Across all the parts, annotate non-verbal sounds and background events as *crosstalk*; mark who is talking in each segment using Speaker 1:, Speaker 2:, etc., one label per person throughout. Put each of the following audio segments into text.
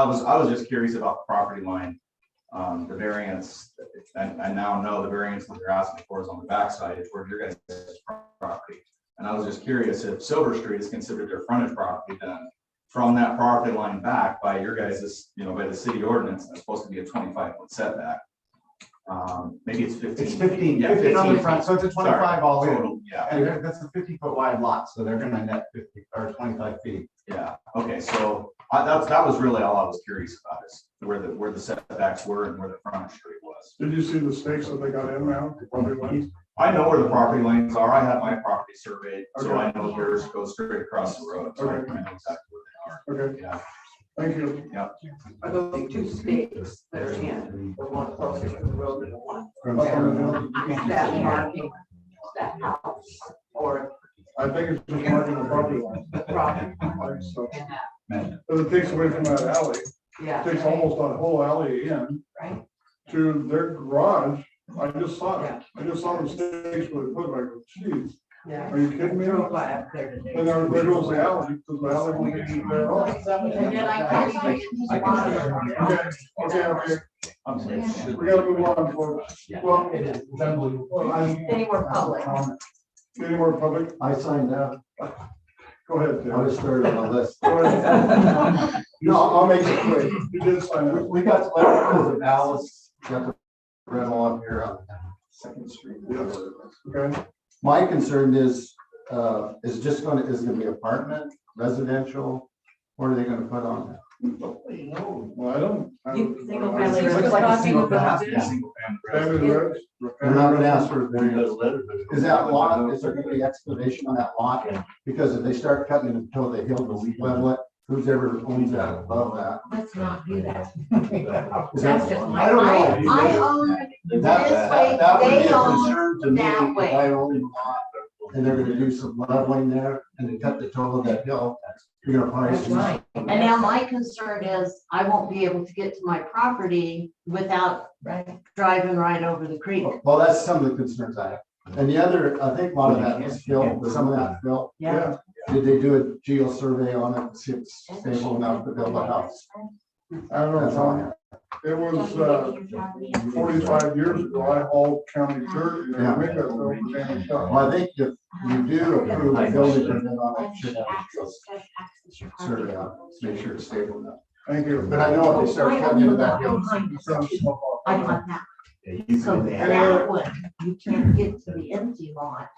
Speaker 1: I was, I was just curious about property line. Um, the variance, I, I now know the variance that you're asking for is on the backside, it's where your guys' property. And I was just curious if Silver Street is considered their frontage property, then from that property line back by your guys', you know, by the city ordinance, that's supposed to be a twenty-five foot setback. Um, maybe it's fifteen.
Speaker 2: It's fifteen,
Speaker 1: Yeah,
Speaker 2: fifteen on the
Speaker 1: 15
Speaker 2: front, so it's a
Speaker 1: Sorry.
Speaker 2: twenty-five all in.
Speaker 1: total, yeah.
Speaker 2: And they're- that's a fifty foot wide lot, so they're gonna net fifty or twenty-five feet.
Speaker 1: Yeah, okay, so I, that, that was really all I was curious about is where the, where the setbacks were and where the frontage street was.
Speaker 3: Did you see the stakes that they got in now, where they went?
Speaker 1: I know where the property lines are. I have my property surveyed, so
Speaker 3: Okay.
Speaker 1: I know yours goes straight across the road. so I
Speaker 3: Okay.
Speaker 1: I know exactly where
Speaker 3: Okay,
Speaker 1: they are.
Speaker 3: thank you.
Speaker 4: Are those two stakes that are in, the one closer to the road and the one that marking that house or
Speaker 3: I think it's just marking the property line,
Speaker 4: the property?
Speaker 3: like, so,
Speaker 4: and that,
Speaker 3: but it takes away from that alley,
Speaker 4: Yeah.
Speaker 3: takes almost that whole alley in
Speaker 4: Right,
Speaker 3: to their garage. I just saw it, I just saw the stakes where they put it, like, geez,
Speaker 4: yeah.
Speaker 3: are you kidding me?
Speaker 4: Drove by up there today.
Speaker 3: And there, there goes the alley, because the alley won't get you there at all.
Speaker 4: And then I
Speaker 2: Well,
Speaker 4: caught it.
Speaker 2: I can-
Speaker 3: Okay, okay, okay,
Speaker 1: I'm sorry.
Speaker 3: we gotta move on, folks. Well,
Speaker 2: I-
Speaker 4: They were public.
Speaker 3: any more public?
Speaker 2: I signed up,
Speaker 3: Go ahead,
Speaker 2: I
Speaker 3: Tim.
Speaker 2: was third on the list.
Speaker 3: Go ahead. *laughs* No, I'll make it quick. You did sign
Speaker 2: We,
Speaker 3: up.
Speaker 2: we got the letters of Alice, got the rental up here on Second Street.
Speaker 3: Yes. Okay,
Speaker 2: My concern is, uh, is just gonna, is it gonna be apartment, residential, what are they gonna put on?
Speaker 3: well, I don't. I don't-
Speaker 5: You single
Speaker 3: I don't-
Speaker 5: family.
Speaker 2: Looks like a single house.
Speaker 1: Yeah, single family residence.
Speaker 3: Family rooms?
Speaker 2: They're not gonna ask for a variance. Is
Speaker 1: Is
Speaker 2: that lot, is there gonna be explanation on that lot? Because if they start cutting it until they hill to level it, who's ever owns that above that?
Speaker 5: Let's not do that.
Speaker 2: Is that-
Speaker 5: *laughs* That's just my-
Speaker 2: I don't know.
Speaker 5: I I own it
Speaker 2: That-
Speaker 5: this way,
Speaker 2: that would be
Speaker 5: they
Speaker 2: a
Speaker 5: own
Speaker 2: concern to me
Speaker 5: that
Speaker 2: if
Speaker 5: way.
Speaker 2: I own a lot and they're gonna do some leveling there and they cut the total of that hill, you're gonna probably.
Speaker 5: That's right. And now my concern is I won't be able to get to my property without driving right over the creek.
Speaker 2: Well, that's some of the concerns I have. And the other, I think a lot of that is fill, some of that fill.
Speaker 3: Yeah,
Speaker 2: Did they do a geo survey on it, to see if it's stable enough to build a house?
Speaker 3: I don't know,
Speaker 2: That's all I
Speaker 3: Tom.
Speaker 2: have.
Speaker 3: It was, uh, forty-five years ago, I hauled county dirt, and I think that's over damn stuff.
Speaker 2: Well, I think if you do approve a building permit on it, you should have a geo survey on it, to make sure it's stable enough.
Speaker 3: Thank you.
Speaker 2: But I know if they start cutting into that hill.
Speaker 5: I want that,
Speaker 6: Yeah, you
Speaker 5: so
Speaker 6: come in the
Speaker 5: that
Speaker 6: alley,
Speaker 5: one, you can't get to the empty lot.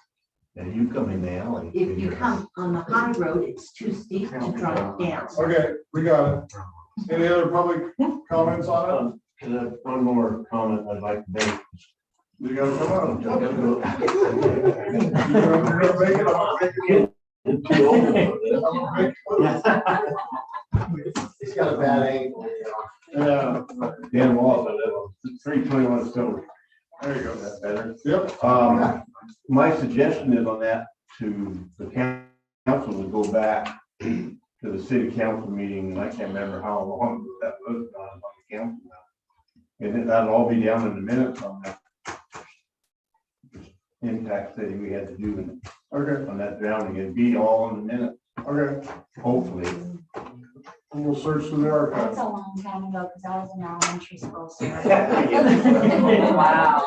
Speaker 6: yeah, you come in the alley.
Speaker 5: If you come on the high road, it's too steep to drive down.
Speaker 3: Okay, we got it. Any other public comments on
Speaker 6: Um, can I- One more comment I'd like to make.
Speaker 3: it? You gotta come on.
Speaker 6: I'm
Speaker 3: You're
Speaker 6: gonna go-
Speaker 3: gonna you're gonna make it, I'm gonna make
Speaker 6: I'm too old for
Speaker 3: it,
Speaker 6: this.
Speaker 3: I'm gonna make
Speaker 2: He's got a bad angle.
Speaker 3: it. Yeah,
Speaker 7: Dan Wallace, I live on three twenty-one Stone,
Speaker 3: there you go.
Speaker 7: that's better.
Speaker 3: Yep,
Speaker 7: Um, my suggestion is on that to the coun- council to go back to the city council meeting, and I can't remember how long that was on, on the council now. And then that'll all be down in the minutes on that impact study we had to do
Speaker 3: okay,
Speaker 7: on that drowning, it'd be all in the minutes,
Speaker 3: okay.
Speaker 7: hopefully.
Speaker 3: And We'll search through the archives.
Speaker 8: That's a long time ago, because I was in elementary school, so
Speaker 4: Wow.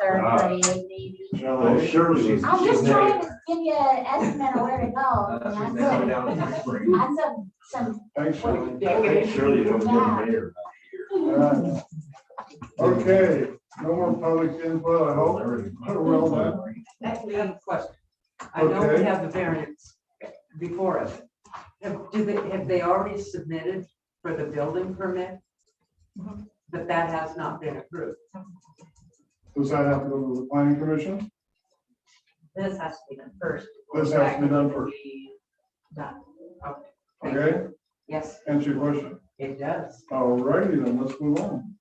Speaker 8: third grade, maybe.
Speaker 3: Oh,
Speaker 7: Well, surely.
Speaker 8: I'm just trying to give you an estimate of where to go. and That's a- that's a- some,
Speaker 3: Thanks, Shirley.
Speaker 7: Surely it'll get better.
Speaker 3: Yeah. Okay, no more public input, I hope. Well done.
Speaker 4: That's the other question. I know we
Speaker 3: Okay.
Speaker 4: have the variance before us. Have, do they, have they already submitted for the building permit? But that has not been approved.
Speaker 3: Does that have to go to the planning commission?
Speaker 4: This has to be done first.
Speaker 3: This has to be done first.
Speaker 4: Done. Okay. Thank you.
Speaker 3: Okay,
Speaker 4: Yes,
Speaker 3: answer your question.
Speaker 4: it does.
Speaker 3: All righty then, let's move on.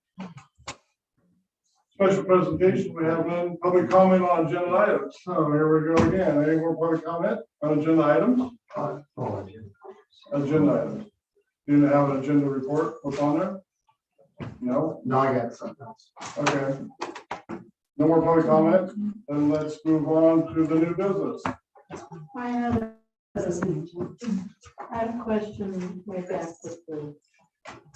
Speaker 3: Special presentation, we have none, public comment on agenda items. So here we go again. Any more public comment on agenda items? Agenda items. Do you have an agenda report? What's on there? No?
Speaker 2: No, I got something else.
Speaker 3: Okay. No more public comment, then let's move on to the new business.
Speaker 9: I have, a- I have a question way back with the